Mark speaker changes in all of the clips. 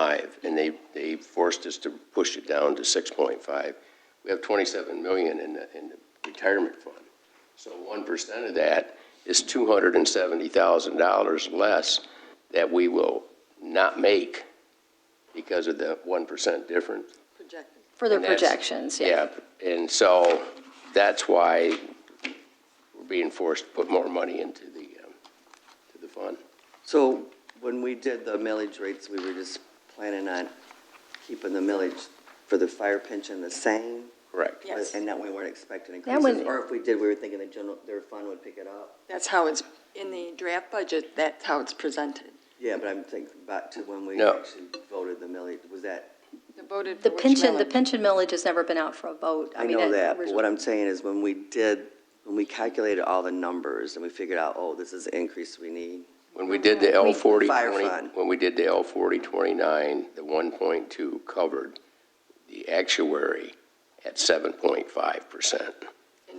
Speaker 1: five, and they, they forced us to push it down to six point five. We have twenty-seven million in the, in the retirement fund. So one percent of that is two hundred and seventy thousand dollars less that we will not make because of the one percent difference.
Speaker 2: For their
Speaker 1: And that's-
Speaker 2: projections, yeah.
Speaker 1: And so that's why we're being forced to put more money into the, um, to the fund.
Speaker 3: So when we did the millage rates, we were just planning on keeping the millage for the fire pension the same?
Speaker 1: Correct.
Speaker 4: Yes.
Speaker 3: And that we weren't expecting
Speaker 2: That was-
Speaker 3: increases, or if we did, we were thinking the general, their fund would pick it up?
Speaker 4: That's how it's, in the draft budget, that's how it's presented.
Speaker 3: Yeah, but I'm thinking back to when we
Speaker 1: No.
Speaker 3: actually voted the millage, was that,
Speaker 4: The voted for
Speaker 2: The
Speaker 4: which
Speaker 2: pension, the
Speaker 4: millage?
Speaker 2: pension millage has never been out for a vote.
Speaker 3: I
Speaker 2: mean,
Speaker 3: know that,
Speaker 2: was-
Speaker 3: but what I'm saying is when we did, when we calculated all the numbers and we figured out, oh, this is the increase we need,
Speaker 1: When we did the L forty
Speaker 3: Fire
Speaker 1: twenty,
Speaker 3: fund.
Speaker 1: when we did the L forty twenty-nine, the one point two covered the actuary at seven point five percent.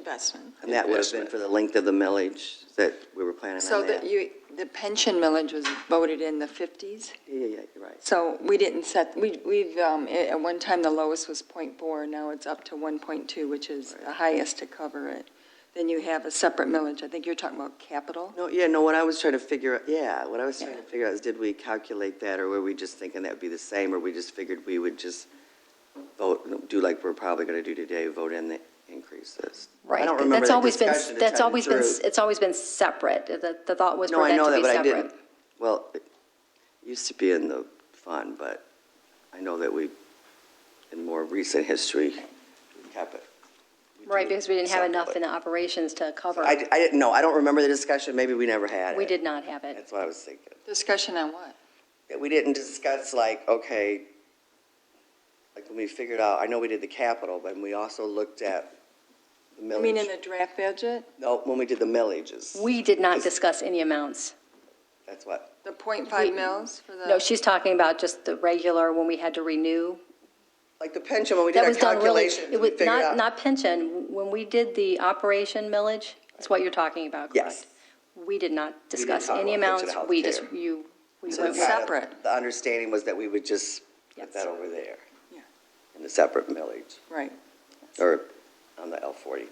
Speaker 4: Investment.
Speaker 3: and that would have been
Speaker 1: Investment.
Speaker 3: for the length of the millage that we were planning
Speaker 4: So
Speaker 3: on that.
Speaker 4: that you, the pension millage was voted in the 50s,
Speaker 3: Yeah, yeah, yeah, you're right.
Speaker 4: so we didn't set, we, we've, um, at at one time, the lowest was .4, now it's up to 1.2, which is the highest to cover it. Then you have a separate millage, I think you're talking about capital.
Speaker 3: No, yeah, no, what I was trying to figure, out yeah, what I was trying to
Speaker 4: Yeah.
Speaker 3: figure out is, did we calculate that, or were we just thinking that would be the same, or we just figured we would just vote, do like we're probably gonna do today, vote in the increases? I
Speaker 2: Right,
Speaker 3: don't
Speaker 2: but
Speaker 3: remember
Speaker 2: that's
Speaker 3: the
Speaker 2: always been,
Speaker 3: discussion to
Speaker 2: that's
Speaker 3: tell you
Speaker 2: always
Speaker 3: the
Speaker 2: been,
Speaker 3: truth.
Speaker 2: it's always been separate. The, the thought was
Speaker 3: No,
Speaker 2: for
Speaker 3: I
Speaker 2: that
Speaker 3: know
Speaker 2: to
Speaker 3: that,
Speaker 2: be
Speaker 3: but I
Speaker 2: separate.
Speaker 3: didn't, well, it used to be in the fund, but I know that we, in more recent history, we kept it. we
Speaker 2: Right,
Speaker 3: do
Speaker 2: because we didn't have enough in
Speaker 3: separately.
Speaker 2: the operations to cover.
Speaker 3: I, I didn't know, I don't remember the discussion, maybe we never had it.
Speaker 2: We did not have it.
Speaker 3: That's what I was thinking.
Speaker 4: Discussion on what?
Speaker 3: that we didn't discuss like, okay, like when we figured out, I know we did the capital, but we also looked at the
Speaker 4: I mean, in the
Speaker 3: millage.
Speaker 4: draft budget,
Speaker 3: No, when we did the millages,
Speaker 2: We did not discuss any amounts.
Speaker 3: that's what,
Speaker 4: the
Speaker 2: We-
Speaker 4: .5 mils for
Speaker 3: Uh,
Speaker 4: the.
Speaker 2: No, she's talking about just the regular, when we had to renew.
Speaker 3: like the pension, when we did
Speaker 2: That
Speaker 3: our
Speaker 2: was done really,
Speaker 3: calculations,
Speaker 2: it was
Speaker 3: we figured
Speaker 2: not,
Speaker 3: out.
Speaker 2: not pension. When we did the operation millage, that's what you're talking about, correct?
Speaker 3: Yes.
Speaker 2: We did not discuss
Speaker 3: talk
Speaker 2: any
Speaker 3: about pension
Speaker 2: amounts. We just,
Speaker 3: healthcare.
Speaker 2: you, we
Speaker 3: So
Speaker 2: went
Speaker 3: it's
Speaker 2: with
Speaker 3: kind of-
Speaker 4: separate.
Speaker 3: The understanding was that we would just
Speaker 2: Yes.
Speaker 3: put that over there.
Speaker 4: Yeah.
Speaker 3: In the separate millage,
Speaker 4: Right.
Speaker 3: or on the L forty.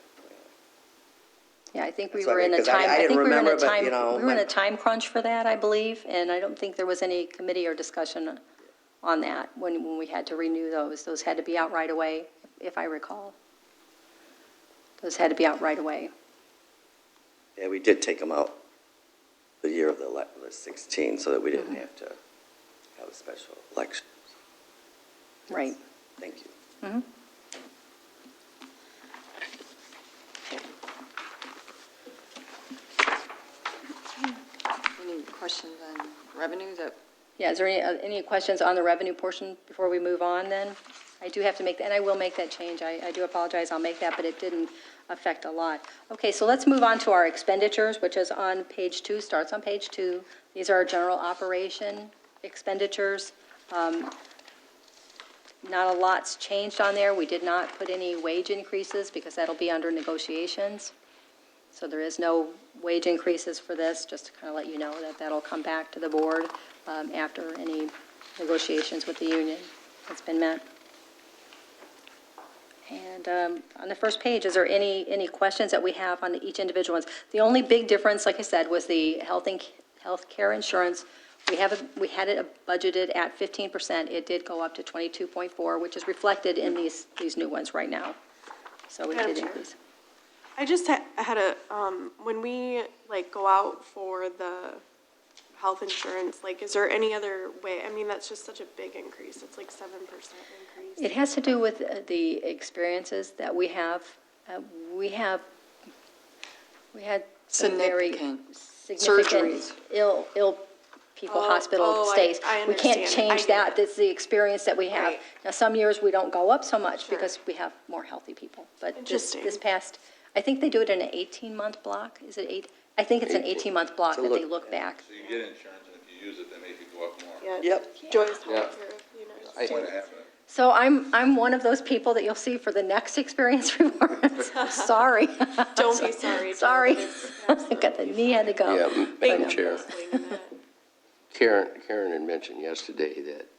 Speaker 2: Yeah, I think we
Speaker 3: That's what I
Speaker 2: were
Speaker 3: mean,
Speaker 2: in a
Speaker 3: 'cause I-
Speaker 2: time,
Speaker 3: I
Speaker 2: I
Speaker 3: didn't
Speaker 2: think we were in
Speaker 3: remember,
Speaker 2: a
Speaker 3: but,
Speaker 2: time,
Speaker 3: you know,
Speaker 2: we were in
Speaker 3: my-
Speaker 2: a time crunch for that, I believe, and I don't think there was any committee or discussion on that when, when we had to renew those. Those had to be out right away, if I recall. Those had to be out right away.
Speaker 3: Yeah, we did take them out the year of the ele- the sixteen, so that we
Speaker 2: Mm-hmm.
Speaker 3: didn't have to have a special election.
Speaker 2: Right.
Speaker 3: Thank you.
Speaker 4: Any questions on revenue that
Speaker 2: Yeah, is there any, uh, any questions on the revenue portion before we move on then? I do have to make, and I will make that change, I, I do apologize, I'll make that, but it didn't affect a lot. Okay, so let's move on to our expenditures, which is on page two, starts on page two. These are our general operation expenditures. Um, Not a lot's changed on there, we did not put any wage increases because that'll be under negotiations. So there is no wage increases for this, just to kind of let you know that that'll come back to the board um, after any negotiations with the union has been met. And um, on the first page, is there any, any questions that we have on each individual ones? The only big difference, like I said, was the health and, healthcare insurance. We have, it- we had it budgeted at 15%. It did go up to 22.4, which is reflected in these, these new ones right now. So we
Speaker 5: Madam
Speaker 2: did
Speaker 5: Chair.
Speaker 2: increase.
Speaker 5: I just ha- had a, um, when we like go out for the health insurance, like, is there any other way? I mean, that's just such a big increase. It's like seven percent increase.
Speaker 2: It has to do with uh, the experiences that we have. Uh, We have, we had some very
Speaker 4: Significant
Speaker 2: significant
Speaker 4: surgeries.
Speaker 2: ill, ill people,
Speaker 5: Oh,
Speaker 2: hospital
Speaker 5: oh, I-
Speaker 2: stays.
Speaker 5: I
Speaker 2: We can't
Speaker 5: understand. I
Speaker 2: change
Speaker 5: get
Speaker 2: that,
Speaker 5: it.
Speaker 2: that's the experience that we have.
Speaker 5: Right.
Speaker 2: Now, some years we don't go up so much because we have more healthy people. But this,
Speaker 5: Interesting.
Speaker 2: this past, I think they do it in an 18-month block, is it eight? I think it's an 18-month block
Speaker 3: To
Speaker 2: that they
Speaker 3: look-
Speaker 2: look back.
Speaker 6: So you get insurance, and if you use it, they make you go up more.
Speaker 5: Yeah.
Speaker 3: Yep.
Speaker 5: Joy's
Speaker 1: Yeah.
Speaker 5: healthcare, you know.
Speaker 6: That's what happened.
Speaker 2: So I'm, I'm one of those people that you'll see for the next experience rewards. Sorry.
Speaker 5: Don't be sorry. Joy.
Speaker 2: Sorry.
Speaker 5: It's
Speaker 2: I got the knee had to go.
Speaker 1: Yeah, Madam Chair.
Speaker 5: absolutely not.
Speaker 1: Karen, Karen had mentioned yesterday that